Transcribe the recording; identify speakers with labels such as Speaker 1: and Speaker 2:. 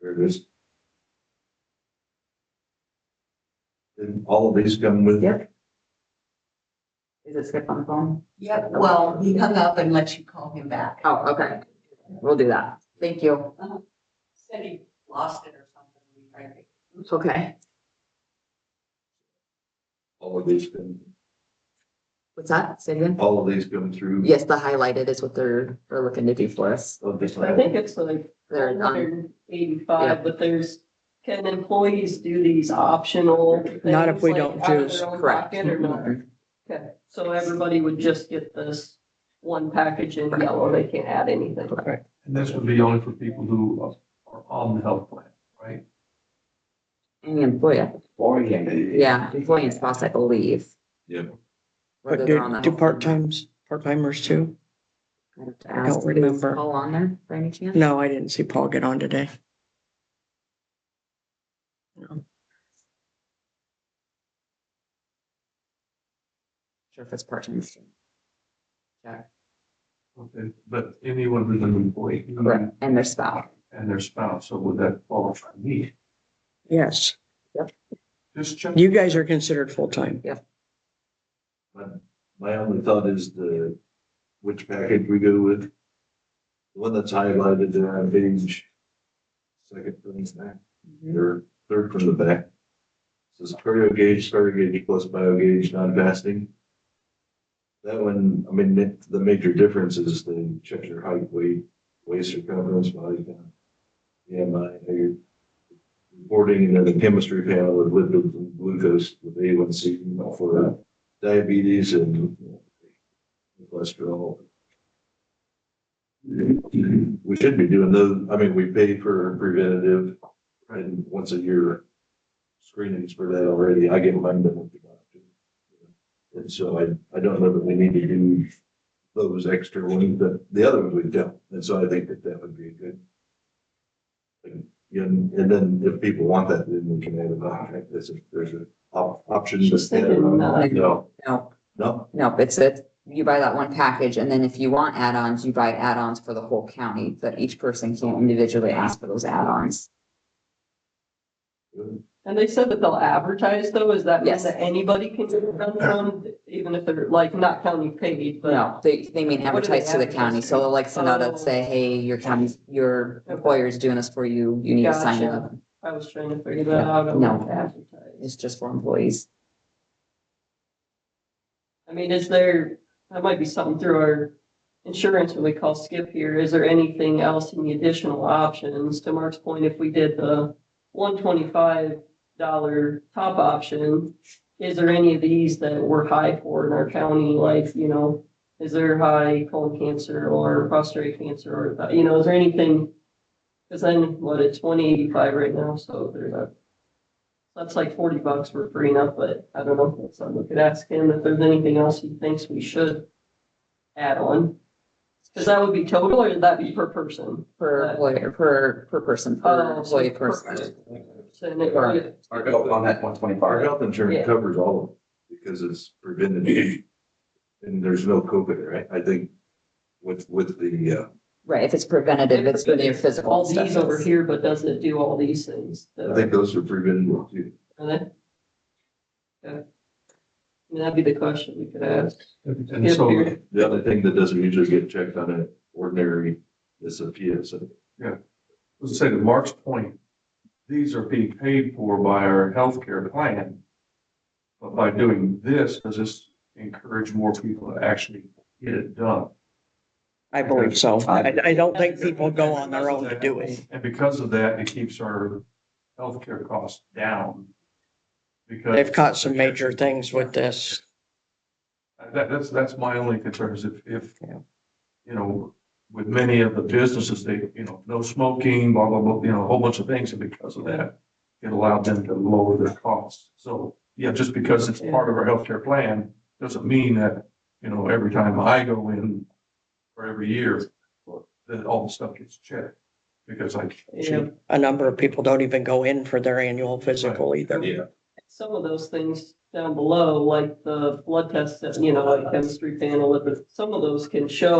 Speaker 1: There it is. And all of these come with.
Speaker 2: Yep. Is it skip on the phone?
Speaker 3: Yep, well, he hung up and let you call him back.
Speaker 2: Oh, okay. We'll do that. Thank you.
Speaker 3: Uh-huh. Said he lost it or something. We tried to-
Speaker 2: It's okay.
Speaker 1: All of these come,
Speaker 2: What's that? Say again?
Speaker 1: all of these come through.
Speaker 2: Yes, the highlighted is what they're, they're looking to do for us.
Speaker 1: Of this
Speaker 4: I think it's like
Speaker 2: They're on,
Speaker 4: hundred and eighty-five, but there's, can employees do these optional?
Speaker 5: Not if
Speaker 4: things,
Speaker 5: we
Speaker 4: like,
Speaker 5: don't
Speaker 4: out of
Speaker 5: do-
Speaker 4: their own
Speaker 2: correct. Mm-hmm.
Speaker 4: pocket or not? Okay, so everybody would just get this one package in yellow, they can't add anything.
Speaker 6: And this would be only for people who are on the health plan, right?
Speaker 2: any employee. Yeah, employee and spouse, I believe.
Speaker 1: Yeah.
Speaker 2: Whether
Speaker 5: But
Speaker 2: they're on
Speaker 5: do,
Speaker 2: that
Speaker 5: do
Speaker 2: health plan or
Speaker 5: part-times, part-timers too?
Speaker 2: not. I have to
Speaker 5: I don't
Speaker 2: ask, is
Speaker 5: remember.
Speaker 2: Paul on there by any chance?
Speaker 5: No, I didn't see Paul get on today.
Speaker 2: Sure if it's part-time.
Speaker 6: Okay, But anyone who's an employee
Speaker 2: Correct. And their spouse.
Speaker 6: and their spouse, so would that qualify me?
Speaker 5: Yes,
Speaker 6: Just check.
Speaker 5: you guys are considered full-time.
Speaker 1: My- My only thought is the, which package we go with. The one that's highlighted there on page. Second from the back, or third from the back. Says cardio gauge, cardio gauge plus bio gauge, non-fasting. That one, I mean, the- the major difference is they check your height, weight, waist circumference, body count. BMI, how you're reporting, and then the chemistry panel with lipids and glucose with A1C, and all for that diabetes and cholesterol. We should be doing those, I mean, we pay for preventative and once a year screenings for that already. I get mine done with the doctor. And so I, I don't know that we need to do those extra ones, but the other ones we don't. And so I think that that would be a good. thing. And, and then if people want that, then we can add it on. There's a, there's a op- option.
Speaker 4: She's thinking, uh,
Speaker 1: No.
Speaker 2: No,
Speaker 1: No,
Speaker 2: no, it's a, you buy that one package and then if you want add-ons, you buy add-ons for the whole county, but each person can individually ask for those add-ons.
Speaker 4: And they said that they'll advertise though, is that mean
Speaker 2: Yes.
Speaker 4: that anybody can run one, even if they're like not county paid, but
Speaker 2: No, they, they mean
Speaker 4: What do they Oh.
Speaker 2: advertise to the county, so they'll like send out and say, hey, your county's, your employer's doing this for you, you need to sign up.
Speaker 4: I was trying to figure that out. I
Speaker 2: No.
Speaker 4: wouldn't advertise.
Speaker 2: It's just for employees.
Speaker 4: I mean, is there, that might be something through our insurance when we call Skip here, is there anything else in the additional options? To Mark's point, if we did the one twenty-five dollar top option, is there any of these that we're high for in our county, like, you know, is there high colon cancer or prostate cancer or, you know, is there anything? Cause then, what, it's one eighty-five right now, so there's a that's like forty bucks for free enough, but I don't know, so we could ask him if there's anything else he thinks we should add on. Cause that would be total or would that be per person?
Speaker 2: Per
Speaker 4: But-
Speaker 2: employer, per, per person, per
Speaker 4: Oh,
Speaker 2: employee
Speaker 4: per
Speaker 2: person.
Speaker 4: person. So, and it-
Speaker 2: Correct.
Speaker 1: Our
Speaker 6: Go on that one
Speaker 1: Our
Speaker 6: twenty-five.
Speaker 1: health insurance
Speaker 4: Yeah.
Speaker 1: covers all of it because it's preventative. And there's no COVID, right? I think with, with the, uh,
Speaker 2: Right, if it's preventative, it's for their
Speaker 4: All
Speaker 2: physical
Speaker 4: these over
Speaker 2: stuff.
Speaker 4: here, but does it do all these things?
Speaker 1: I think those are preventative too.
Speaker 4: Are they? Okay. I mean, that'd be the question we could ask.
Speaker 6: And so,
Speaker 1: The other thing that doesn't usually get checked on an ordinary is a PSA.
Speaker 6: let's say to Mark's point, these are being paid for by our healthcare plan. But by doing this, does this encourage more people to actually get it done?
Speaker 5: I believe so. I, I don't think people go on their own to do it.
Speaker 6: And because of that, it keeps our healthcare costs down. Because
Speaker 5: They've caught some major things with this.
Speaker 6: that, that's, that's my only concern is if, if,
Speaker 5: Yeah.
Speaker 6: you know, with many of the businesses, they, you know, no smoking, blah, blah, blah, you know, a whole bunch of things. And because of that, it allowed them to lower their costs. So, yeah, just because it's part of our healthcare plan doesn't mean that, you know, every time I go in or every year, that all the stuff gets checked. Because I,
Speaker 4: Yeah,
Speaker 5: A number of people don't even go in for their annual physical either.
Speaker 1: Yeah.
Speaker 4: some of those things down below, like the blood test, you know, like chemistry panel, but some of those can show